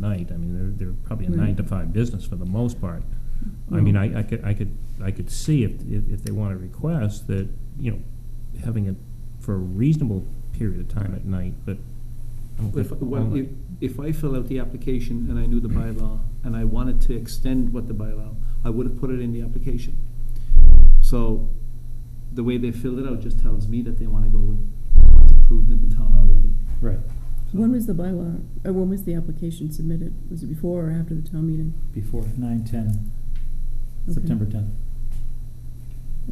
night. I mean, they're, they're probably a Right. nine to five business for the most part. I mean, I, I could, I could, I could see if, if, if they want to request that, you know, having it for a reasonable period of time at night, but I don't If, think all well, if, night. if I fill out the application and I knew the Mm-hmm. bylaw, and I wanted to extend what the bylaw, I would have put it in the application. So, the way they filled it out just tells me that they wanna go with what's approved in the town already. Right, When was the bylaw, uh, when was the application submitted? Was it before or after the town meeting? before nine ten, Okay. September tenth.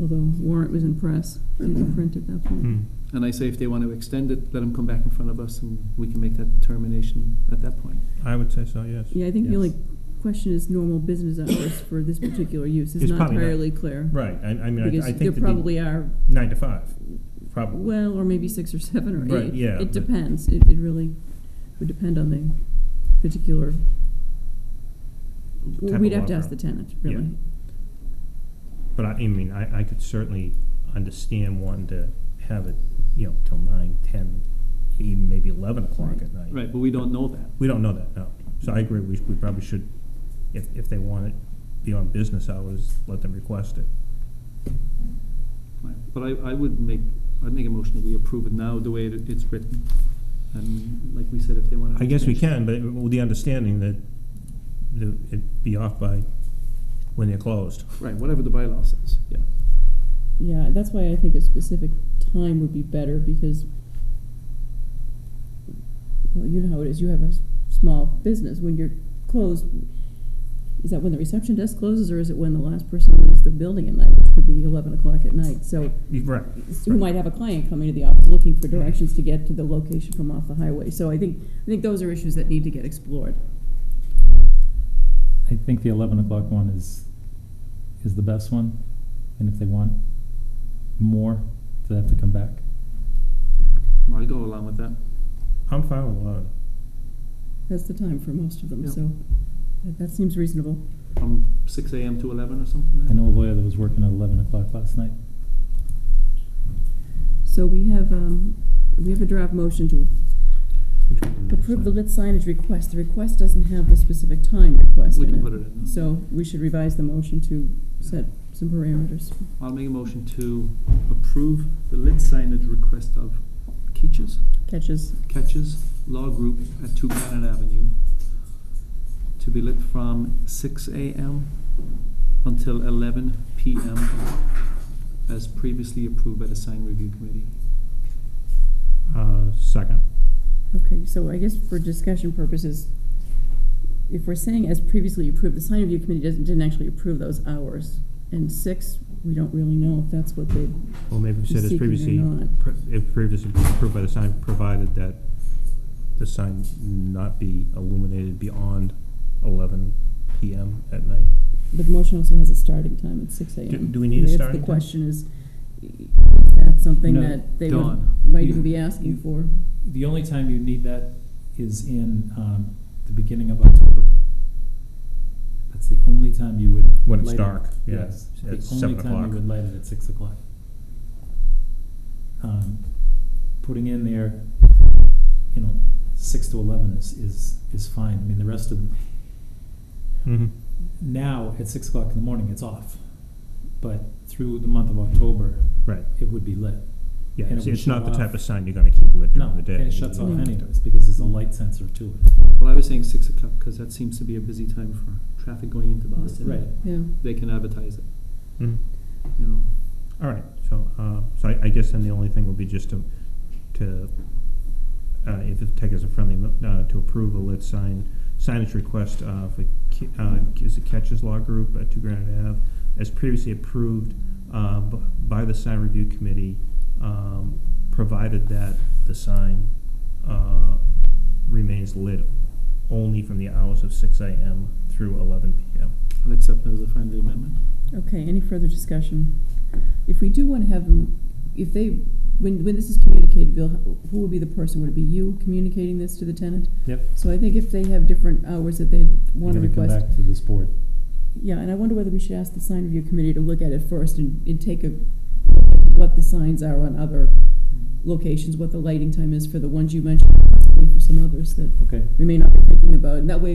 Although warrant was in press, didn't print at Hmm. that point. And I say if they wanna extend it, let them come back in front of us and we can make that determination at that point. I would say so, yes. Yeah, I think the Yes. only question is normal business hours for this particular use. It's It's not probably not- entirely clear. Right, I, I mean, I- I think. Because there that the- probably are, Nine to five, probably. well, or maybe six or seven or eight. Right, yeah, but- It depends. It, it really would depend on the particular. Type of We'd have law to ask the firm. tenant, Yeah. really. But I, I mean, I, I could certainly understand wanting to have it, you know, till nine, ten, even maybe eleven o'clock at night. Right, but we don't know that. We don't know that, no. So I agree, we, we probably should, if, if they want it beyond business hours, let them request it. Right, But I, I would make, I'd make a motion that we approve it now, the way it- it's written. And like we said, if they wanna. I guess we extension- can, but with the understanding that the- it'd be off by when they're closed. Right, whatever the bylaw says, yeah. Yeah, that's why I think a specific time would be better because, well, you know how it is. You have a s- small business. When you're closed, is that when the reception desk closes or is it when the last person leaves the building at night, which could be 11 o'clock at night? So, You- Right. who might have a client coming to the office looking for directions to get to the location from off the highway. So, I think I think those are issues that need to get explored. I think the eleven o'clock one is, is the best one, and if they want more, they have to come back. I'll go along with that. I'm fine with eleven. That's the time for most of them. Yeah. So, that, that seems reasonable. From six AM to eleven or something like I that? know a lawyer that was working at eleven o'clock last night. So we have, um, we have a draft motion to Which one do we approve the decide? lit signage request. The request doesn't have the specific time request We in can it. put it in. So we should revise the motion to set some parameters. I'll make a motion to approve the lit signage request of Keaches, Catches, Catches Law Group at Two Granite Avenue to be lit from six AM until eleven PM as previously approved by the sign review committee. Uh, second. okay, so I guess for discussion purposes, if we're saying as previously approved, the sign review committee doesn't, didn't actually approve those hours. And six, we don't really know if that's what they, Well, maybe we Be said as seeking or previously, not. pre- if previously approved by the sign, provided that the sign not be illuminated beyond eleven PM at night. but the motion also has a starting time at six AM. Do- do we need a That's starting The time? question is, is that something No, that they would, Dawn, might you- even be you- asking for? The only time you need that is in, um, the beginning of October. That's the only time you would. When it's light it. dark, yeah, Yes, it's- it's the seven only time o'clock. you would light it at six o'clock. Um, putting in there, you know, six to eleven is, is, is fine. I mean, the rest of, Mm-hmm. now at six o'clock in the morning, it's off. But through the month of October, Right, it would be lit. yeah, And it's, it would it's not the shut type off. of sign you're gonna keep lit No, during the and day. Mm. it shuts off Mm-hmm. Yeah. anyways because there's a light sensor to it. Well, I was saying six o'clock because that seems to be a busy time for traffic going into Boston. Right. Yeah. They can advertise it, Mhm. you know. All right, so, uh, so I, I guess then the only thing would be just to, to, uh, if it take as a friendly, mo- uh, to approve a lit sign, signage request, uh, for, Ki- uh, is it Catches Law Group at Two Granite Ave, as previously approved, uh, b- by the sign review committee, um, provided that the sign, uh, remains lit only from the hours of six AM through eleven PM. I'll accept it as a friendly amendment. Okay, any further discussion? If we do want to have them, if they, when, when this is communicated, Bill, who would be the person? Would it be you communicating this to the tenant? Yep. So I think if they have different hours that they want to You're gonna request. Come back to this board. Yeah, and I wonder whether we should ask the sign review committee to look at it first and, and take a, look at what the signs are on other locations, what the lighting time is for the ones you mentioned, possibly for some others that Okay. we may not be thinking about. And that way,